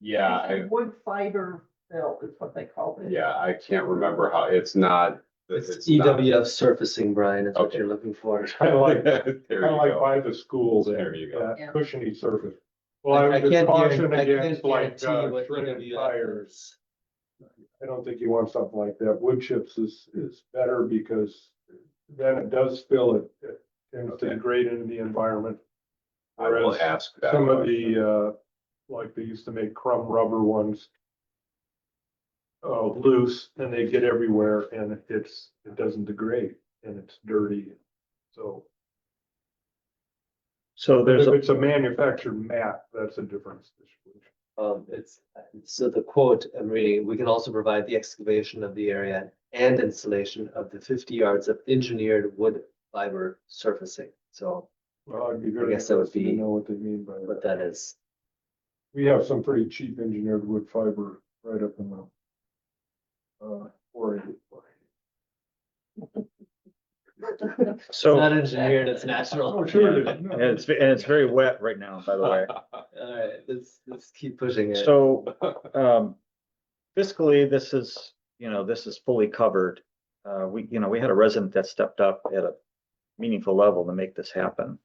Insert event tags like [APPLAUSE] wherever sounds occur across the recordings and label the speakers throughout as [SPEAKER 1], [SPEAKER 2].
[SPEAKER 1] Yeah, I,
[SPEAKER 2] Wood fiber fill is what they call it.
[SPEAKER 1] yeah, I can't remember how, it's not.
[SPEAKER 3] It's E
[SPEAKER 1] not-
[SPEAKER 3] EWF surfacing, Brian, is what
[SPEAKER 1] Okay.
[SPEAKER 3] you're looking for.
[SPEAKER 4] Kind of
[SPEAKER 1] [LAUGHS]
[SPEAKER 4] like,
[SPEAKER 1] There you
[SPEAKER 4] kind of like
[SPEAKER 1] go.
[SPEAKER 4] by the schools
[SPEAKER 1] There
[SPEAKER 4] and
[SPEAKER 1] you go.
[SPEAKER 4] uh,
[SPEAKER 2] Yeah.
[SPEAKER 4] cushiony surface. Well,
[SPEAKER 3] I
[SPEAKER 4] I
[SPEAKER 3] I can't
[SPEAKER 4] would just
[SPEAKER 3] guarantee-
[SPEAKER 4] caution
[SPEAKER 3] I
[SPEAKER 4] against
[SPEAKER 3] can't
[SPEAKER 4] like,
[SPEAKER 3] guarantee
[SPEAKER 4] uh,
[SPEAKER 3] what E
[SPEAKER 4] shredded
[SPEAKER 3] EWF
[SPEAKER 4] tires.
[SPEAKER 3] is.
[SPEAKER 4] I don't think you want something like that. Wood chips is, is better because then it does fill it. It tends to
[SPEAKER 1] Okay.
[SPEAKER 4] degrade into the environment.
[SPEAKER 1] I will
[SPEAKER 4] Whereas
[SPEAKER 1] ask that.
[SPEAKER 4] Some of
[SPEAKER 1] question.
[SPEAKER 4] the, uh, like they used to make crumb rubber ones. Uh, loose and they get everywhere and it's, it doesn't degrade and it's dirty. So
[SPEAKER 5] So there's
[SPEAKER 4] if
[SPEAKER 5] a,
[SPEAKER 4] it's a manufactured mat, that's a different situation.
[SPEAKER 3] Um, it's, so the quote I'm reading, we can also provide the excavation of the area and installation of the fifty yards of engineered wood fiber surfacing. So
[SPEAKER 4] Well, I'd be very
[SPEAKER 3] I guess that would
[SPEAKER 4] interested to
[SPEAKER 3] be-
[SPEAKER 4] Know what they mean by
[SPEAKER 3] what
[SPEAKER 4] that.
[SPEAKER 3] that is.
[SPEAKER 4] We have some pretty cheap engineered wood fiber right up in the. Uh, quarry.
[SPEAKER 3] It's
[SPEAKER 5] so,
[SPEAKER 3] not engineered, it's natural.
[SPEAKER 4] Oh,
[SPEAKER 3] [LAUGHS]
[SPEAKER 4] [LAUGHS] sure. it is. No.
[SPEAKER 5] and it's, and it's very wet right now, by the way.
[SPEAKER 3] Alright, let's, let's keep pushing it.
[SPEAKER 5] So, um, fiscally, this is, you know, this is fully covered. Uh, we, you know, we had a resident that stepped up at a meaningful level to make this happen.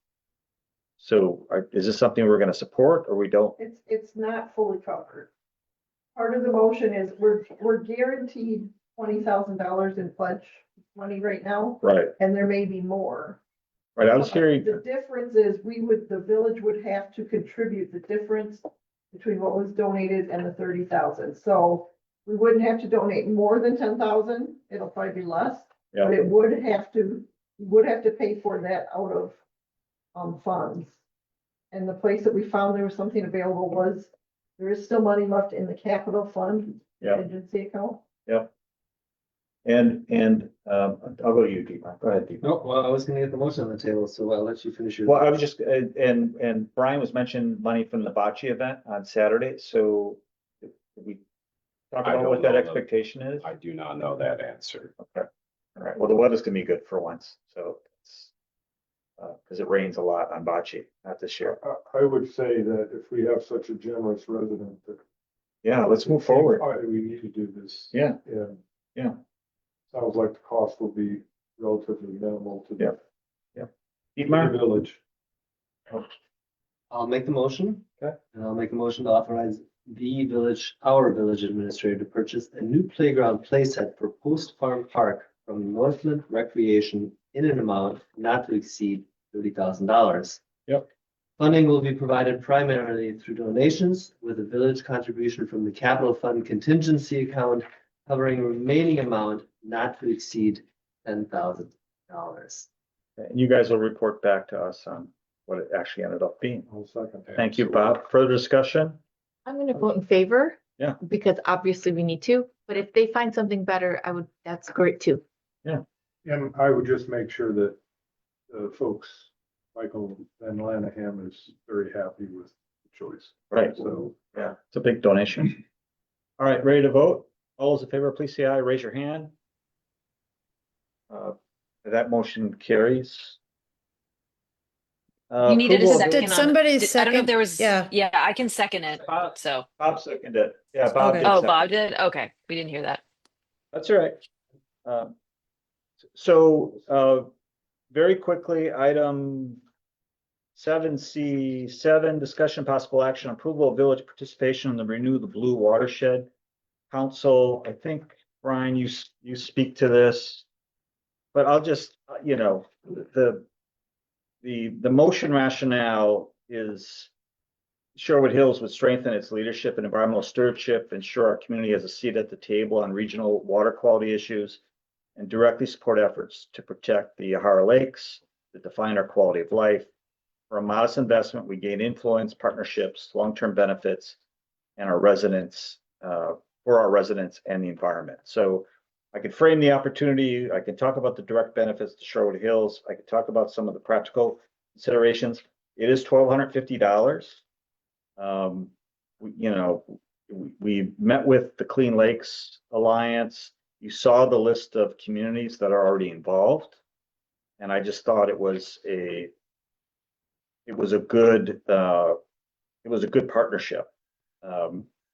[SPEAKER 5] So are, is this something we're gonna support or we don't?
[SPEAKER 2] It's, it's not fully covered. Part of the motion is we're, we're guaranteed twenty thousand dollars in pledge money right now,
[SPEAKER 5] Right,
[SPEAKER 2] and there may be more.
[SPEAKER 5] right, I was hearing,
[SPEAKER 2] The difference is we would, the village would have to contribute the difference between what was donated and the thirty thousand. So we wouldn't have to donate more than ten thousand. It'll probably be less. But
[SPEAKER 5] Yeah.
[SPEAKER 2] it would have to, you would have to pay for that out of um funds. And the place that we found there was something available was, there is still money left in the capital fund
[SPEAKER 5] Yeah.
[SPEAKER 2] agency account.
[SPEAKER 5] and, and, um, I'll go to you, Deepak, go ahead, Deepak.
[SPEAKER 3] No, well, I was gonna get the motion on the table, so I'll let you finish your.
[SPEAKER 5] Well, I was just, and, and- and Brian was mentioning money from the bocce event on Saturday, so did we talk
[SPEAKER 1] I
[SPEAKER 5] about what
[SPEAKER 1] don't
[SPEAKER 5] that
[SPEAKER 1] know the-
[SPEAKER 5] expectation is?
[SPEAKER 1] I do not know that answer.
[SPEAKER 5] All right, well, the weather's gonna be good for once, so it's, uh, cause it rains a lot on bocce, not this year.
[SPEAKER 4] I, I would say that if we have such a generous resident that.
[SPEAKER 5] Yeah, let's move forward.
[SPEAKER 4] All right, we need to do this.
[SPEAKER 5] Yeah.
[SPEAKER 4] And.
[SPEAKER 5] Yeah.
[SPEAKER 4] Sounds like the cost will be relatively minimal to. the-
[SPEAKER 5] Yeah.
[SPEAKER 4] to
[SPEAKER 5] Dietmar?
[SPEAKER 4] The village.
[SPEAKER 3] I'll make the motion.
[SPEAKER 5] Okay.
[SPEAKER 3] And I'll make a motion to authorize the village, our village administrator to purchase a new playground playset for Post Farm Park from Northland Recreation in an amount not to exceed thirty thousand dollars.
[SPEAKER 5] Yep.
[SPEAKER 3] Funding will be provided primarily through donations with a village contribution from the capital fund contingency account covering remaining amount not to exceed ten thousand dollars.
[SPEAKER 5] And you guys will report back to us on what it actually ended up being.
[SPEAKER 4] I'll second that.
[SPEAKER 5] Thank you, Bob. Further discussion?
[SPEAKER 6] I'm gonna vote in favor.
[SPEAKER 5] Yeah.
[SPEAKER 6] Because obviously we need to, but if they find something better, I would, that's great too.
[SPEAKER 4] And I would just make sure that the folks, Michael Van Lanaham is very happy with the choice.
[SPEAKER 5] Right.
[SPEAKER 4] So.
[SPEAKER 5] Yeah. It's a big donation. All right, ready to vote? All those in favor, please say aye, raise your hand. Uh, That motion carries. Uh,
[SPEAKER 7] You needed a
[SPEAKER 5] approval of-
[SPEAKER 7] second.
[SPEAKER 8] Did
[SPEAKER 7] on it.
[SPEAKER 8] somebody
[SPEAKER 7] Did- I don't know if
[SPEAKER 8] second?
[SPEAKER 7] there was,
[SPEAKER 8] Yeah.
[SPEAKER 7] yeah, I can second it,
[SPEAKER 5] Bob-
[SPEAKER 7] so.
[SPEAKER 5] Bob seconded it. Yeah, Bob
[SPEAKER 8] Okay.
[SPEAKER 5] did.
[SPEAKER 7] Oh,
[SPEAKER 5] second.
[SPEAKER 7] Bob did? Okay, we didn't hear that.
[SPEAKER 5] That's all right. Um, So, uh, very quickly, item seven C seven, discussion possible action approval of village participation in the Renew the Blue Watershed Council. I think, Brian, you, s- you speak to this. But I'll just, uh, you know, the, the, the motion rationale is Sherwood Hills would strengthen its leadership in environmental stewardship, ensure our community has a seat at the table on regional water quality issues, and directly support efforts to protect the Yahara Lakes that define our quality of life. For a modest investment, we gain influence, partnerships, long-term benefits, and our residents, uh, for our residents and the environment. So I could frame the opportunity, I can talk about the direct benefits to Sherwood Hills, I could talk about some of the practical considerations. It is twelve hundred fifty dollars um, we, you know, we, we met with the Clean Lakes Alliance. You saw the list of communities that are already involved. And I just thought it was a, it was a good, uh, it was a good partnership. Um,